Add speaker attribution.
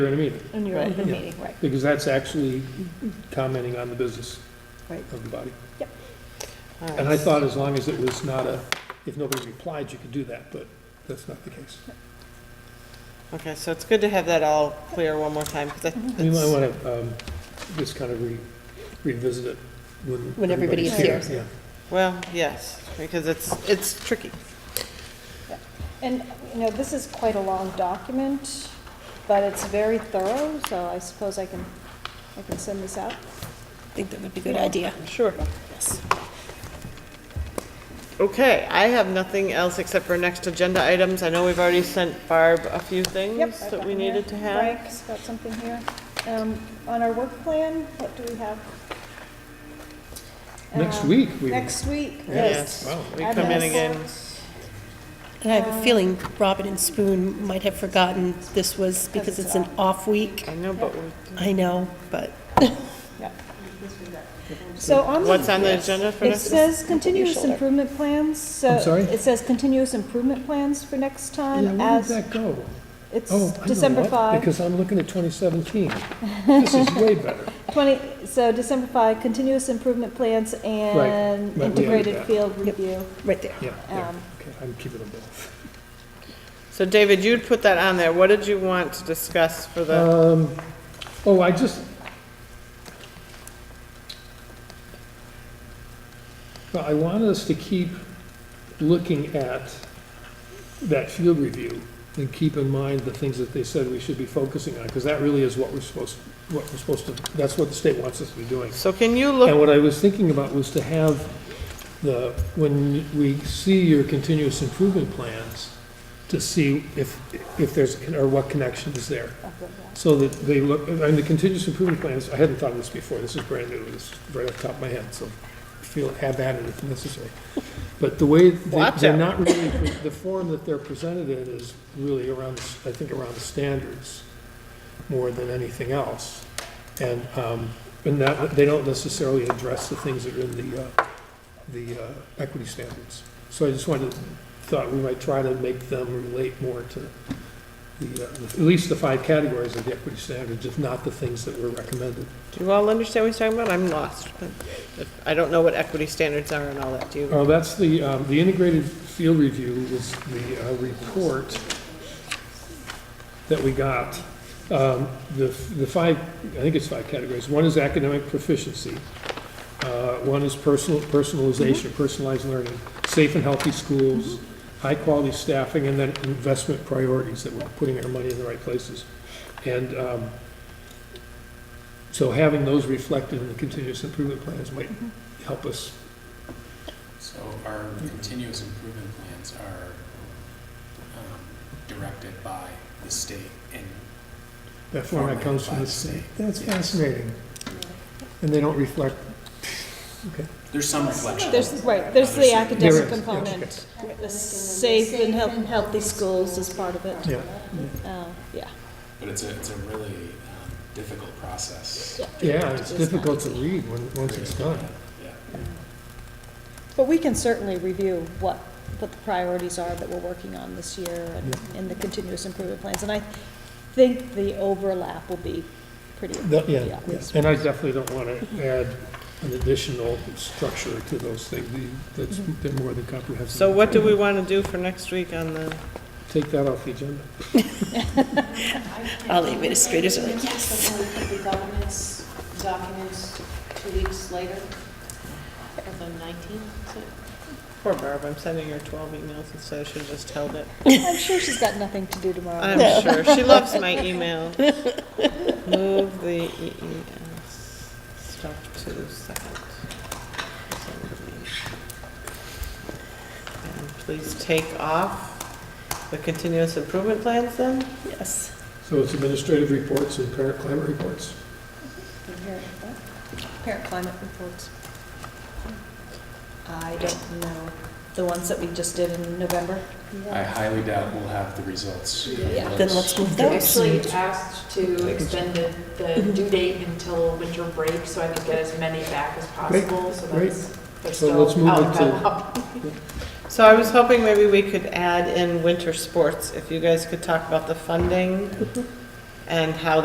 Speaker 1: during the meeting,
Speaker 2: in your open
Speaker 1: Right.
Speaker 2: meeting, right,
Speaker 1: because that's actually commenting on the business
Speaker 2: right.
Speaker 1: of the body.
Speaker 3: All right.
Speaker 1: And I thought as long as it was not a, if nobody replied, you could do that, but that's not the case.
Speaker 3: Okay, so it's good to have that all clear one more time, because
Speaker 1: We might want to just kind of re- revisit it when.
Speaker 2: When everybody
Speaker 1: everybody's
Speaker 2: is
Speaker 1: here.
Speaker 3: well, yes, because it's, it's tricky.
Speaker 2: And, you know, this is quite a long document, but it's very thorough, so I suppose I can, I can send this out.
Speaker 4: I think that would be a good idea.
Speaker 3: Sure. Okay, I have nothing else except for next agenda items. I know we've already sent Barb a few
Speaker 2: Yep.
Speaker 3: things
Speaker 2: I've
Speaker 3: that
Speaker 2: got
Speaker 3: we
Speaker 2: them here.
Speaker 3: needed to have.
Speaker 2: Frank's got something here. Um, On our work plan, what do we have?
Speaker 1: Yeah. Next
Speaker 2: Um,
Speaker 1: week, we,
Speaker 2: Next week, yes.
Speaker 3: Yes,
Speaker 1: Wow.
Speaker 3: we come in
Speaker 2: Fabulous.
Speaker 3: again.
Speaker 4: And I have a feeling Robin and Spoon might have forgotten this was because it's an off week.
Speaker 3: I know, but we-
Speaker 4: I know, but
Speaker 2: Yep. So on the.
Speaker 3: what's on the agenda for
Speaker 2: It
Speaker 3: next?
Speaker 2: says continuous improvement plans, so.
Speaker 1: I'm sorry?
Speaker 2: It says continuous improvement plans for next
Speaker 1: yeah,
Speaker 2: time
Speaker 1: where did
Speaker 2: as,
Speaker 1: that go?
Speaker 2: it's
Speaker 1: Oh, I know
Speaker 2: December
Speaker 1: what,
Speaker 2: 5.
Speaker 1: because I'm looking at 2017. This is way better.
Speaker 2: 20, so December 5, continuous improvement plans and
Speaker 1: Right, we
Speaker 2: integrated
Speaker 1: added that.
Speaker 2: field review.
Speaker 4: right there.
Speaker 1: Yeah, yeah,
Speaker 2: Um,
Speaker 1: okay, I'm keeping them both.
Speaker 3: So David, you'd put that on there. What did you want to discuss for the,
Speaker 1: Um, oh, I just. Well, I want us to keep looking at that field review and keep in mind the things that they said we should be focusing on, because that really is what we're supposed, what we're supposed to, that's what the state wants us to be doing.
Speaker 3: so can you look
Speaker 1: Uh, And what I was thinking about was to have the, when we see your continuous improvement plans, to see if, if there's, or what connection is there. So that they look, and the continuous improvement plans, I hadn't thought of this before, this is brand new, this is right off the top of my head, so feel, have at it if necessary. But the way, they-
Speaker 3: Watch
Speaker 1: they're
Speaker 3: out.
Speaker 1: not really, the form that they're presented in is really around, I think, around the standards more than anything else. And, um, and that, they don't necessarily address the things that are in the, uh, the uh, equity standards. So I just wanted, thought we might try to make them relate more to the, uh, at least the five categories of the equity standards, if not the things that were recommended.
Speaker 3: Do you all understand what he's talking about? I'm lost. If- I don't know what equity standards are and all that, do you?
Speaker 1: Oh, that's the, um, the integrated field review is the uh, report that we got. Um, The, the five, I think it's five categories. One is academic proficiency. Uh, One is personal, personalization, personalized learning, safe and healthy schools, high-quality staffing, and then investment priorities, that we're putting our money in the right places. And um, so having those reflected in the continuous improvement plans might help us
Speaker 5: So our continuous improvement plans are um, directed by the state and
Speaker 1: That format comes from the
Speaker 5: Format by
Speaker 1: state.
Speaker 5: state.
Speaker 1: That's
Speaker 5: Yes.
Speaker 1: fascinating. And they don't reflect,
Speaker 5: there's some reflection.
Speaker 2: There's, right, there's the
Speaker 1: There
Speaker 2: academic
Speaker 1: is, yeah,
Speaker 2: component. The safe and health- healthy schools is part of it.
Speaker 1: yeah.
Speaker 2: Uh, Yeah.
Speaker 5: But it's a, it's a really um, difficult process.
Speaker 1: Yeah, it's difficult to read when, once it's done.
Speaker 5: Yeah.
Speaker 2: But we can certainly review what, what the priorities are that we're working on this year and in the continuous improvement plans. And I think the overlap will be pretty
Speaker 1: That-
Speaker 2: pretty
Speaker 1: Yeah,
Speaker 2: obvious.
Speaker 1: and I definitely don't want to add an additional structure to those things. The- That's, they're more than comprehensive.
Speaker 3: So what do we want to do for next week on the,
Speaker 1: Take that off the agenda.
Speaker 4: All the administrators are like, yes.
Speaker 6: The governance documents two weeks later, or the 19th, is it?
Speaker 3: poor Barb, I'm sending her 12 emails instead, I should have just held it.
Speaker 2: I'm sure she's got nothing to do tomorrow.
Speaker 3: I'm sure, she loves my email. Move the EES stuff to second. And please take off the continuous improvement plans then?
Speaker 4: Yes.
Speaker 1: So it's administrative reports and parent climate reports.
Speaker 6: Parent climate reports. I don't know, the ones that we just did in November?
Speaker 5: I highly doubt we'll have the results.
Speaker 6: Yeah.
Speaker 4: Then let's move
Speaker 7: I
Speaker 4: those.
Speaker 7: actually asked to extend the, the due date until winter break, so I could get as many back as possible, so
Speaker 1: great.
Speaker 7: that's, they're
Speaker 1: So let's
Speaker 7: still
Speaker 1: move
Speaker 7: out
Speaker 1: it
Speaker 7: of
Speaker 1: to-
Speaker 7: backlog.
Speaker 3: So I was hoping maybe we could add in winter sports, if you guys could talk about the funding and how